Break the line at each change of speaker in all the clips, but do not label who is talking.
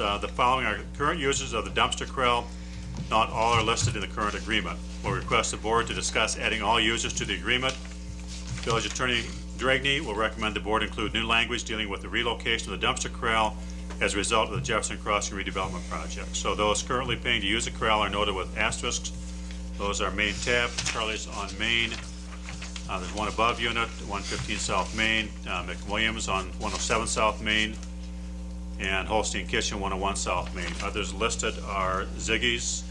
uh, the following are current users of the dumpster corral. Not all are listed in the current agreement. We'll request the board to discuss adding all users to the agreement. Village Attorney Dragney will recommend the board include new language dealing with the relocation of the dumpster corral as a result of the Jefferson Crossing redevelopment project. So those currently paying to use the corral are noted with asterisks. Those are Main Tab, Charlie's on Main, uh, there's one above unit, 115 South Main, uh, McWilliams on 107 South Main, and Holstein Kitchen, 101 South Main. Others listed are Ziggy's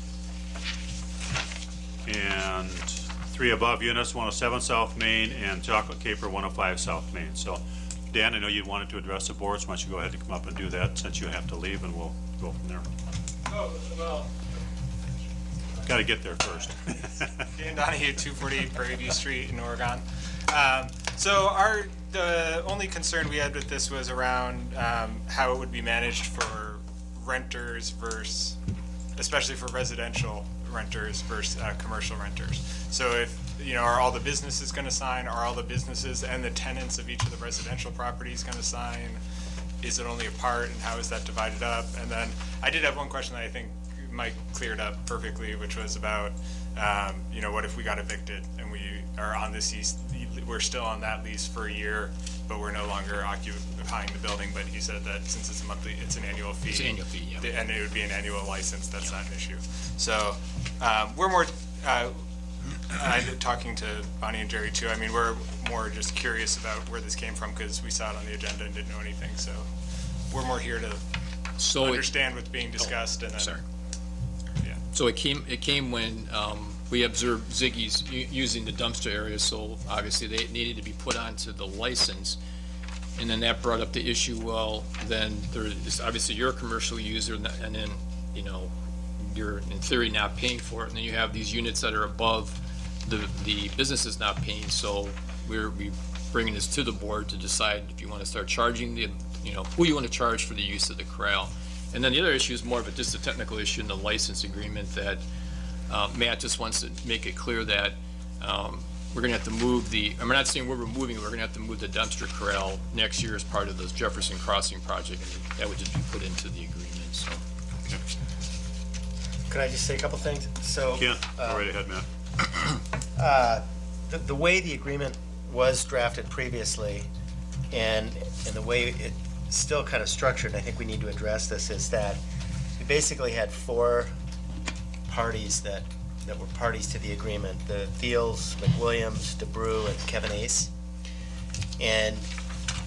and three above units, 107 South Main and Chocolate Caper, 105 South Main. So, Dan, I know you wanted to address the boards, why don't you go ahead and come up and do that, since you have to leave, and we'll go from there.
Oh, well,
Got to get there first.
Dan Donahue, 248 Prairie View Street in Oregon. Um, So our, the only concern we had with this was around um, how it would be managed for renters versus, especially for residential renters versus uh, commercial renters. So if, you know, are all the businesses going to sign? Are all the businesses and the tenants of each of the residential properties going to sign? Is it only a part and how is that divided up? And then I did have one question that I think Mike cleared up perfectly, which was about, um, you know, what if we got evicted and we are on this lease, we're still on that lease for a year, but we're no longer occupying the building, but he said that since it's a monthly, it's an annual fee.
It's an annual fee, yeah.
the- And it would be an annual license, that's not an issue. So, um, we're more, uh, I'm talking to Bonnie and Jerry too, I mean, we're more just curious about where this came from, because we saw it on the agenda and didn't know anything, so we're more here to
So it-
understand what's being discussed and then.
Sorry.
Yeah.
So it came, it came when um, we observed Ziggy's u- using the dumpster area, so obviously they needed to be put onto the license. And then that brought up the issue, well, then there is, obviously you're a commercial user and and then, you know, you're in theory not paying for it. And then you have these units that are above the, the business is not paying, so we're, we bringing this to the board to decide if you want to start charging the, you know, who you want to charge for the use of the corral. And then the other issue is more of a, just a technical issue in the license agreement that, uh, Matt just wants to make it clear that, um, we're gonna have to move the, I'm not saying we're removing it, we're gonna have to move the dumpster corral next year as part of the Jefferson Crossing project, and that would just be put into the agreement, so.
Could I just say a couple things? So, uh,
Ken, go right ahead, Matt.
the, the way the agreement was drafted previously, and, and the way it's still kind of structured, and I think we need to address this, is that we basically had four parties that, that were parties to the agreement, the Thiels, McWilliams, DeBrew, and Kevin Ace. And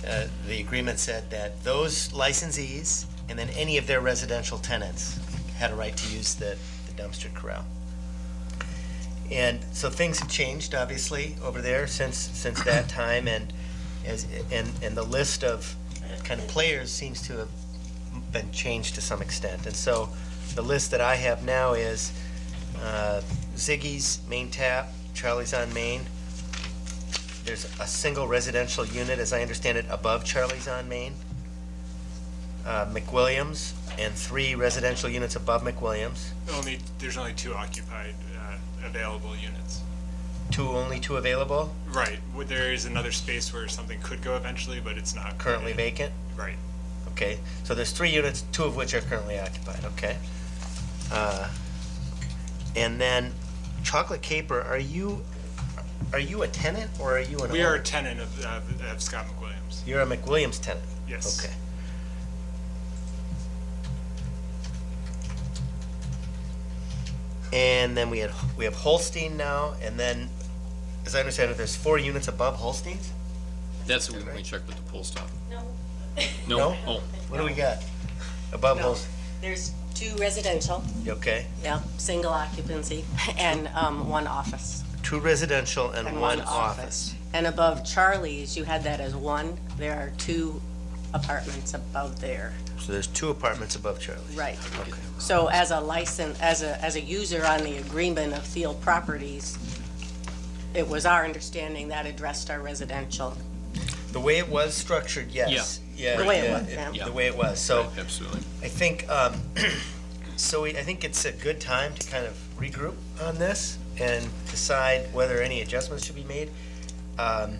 uh, the agreement said that those licensees and then any of their residential tenants had a right to use the the dumpster corral. And so things have changed, obviously, over there since, since that time, and, as, and, and the list of kind of players seems to have been changed to some extent. And so the list that I have now is uh, Ziggy's, Main Tap, Charlie's on Main. There's a single residential unit, as I understand it, above Charlie's on Main. Uh, McWilliams, and three residential units above McWilliams.
Only, there's only two occupied, uh, available units.
Two, only two available,
Right, Well, there is another space where something could go eventually, but it's not.
currently
permitted.
vacant.
Right.
Okay, so there's three units, two of which are currently occupied, okay? Uh, And then Chocolate Caper, are you, are you a tenant or are you an owner?
We are a tenant of, of of Scott McWilliams.
You're a McWilliams tenant?
Yes.
Okay. And then we had, we have Holstein now, and then, as I understand it, there's four units above Holstein's?
That's what we, we checked with the poll stop.
No,
No?
No?
Oh,
What do we got? Above
no.
Holstein,
There's two residential,
okay?
yeah, single occupancy, and um, one office.
Two residential and one office.
And above Charlie's, you had that as one. There are two apartments above there.
So there's two apartments above Charlie.
Right. So as a license, as a, as a user on the agreement of Thiel Properties, it was our understanding that addressed our residential.
The way it was structured, yes. Yeah.
The way it was,
yeah,
yeah.
The way it was. So
absolutely.
I think, um, so we- I think it's a good time to kind of regroup on this and decide whether any adjustments should be made. Um,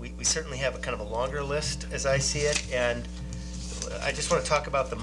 We we certainly have a kind of a longer list, as I see it, and I just want to talk about the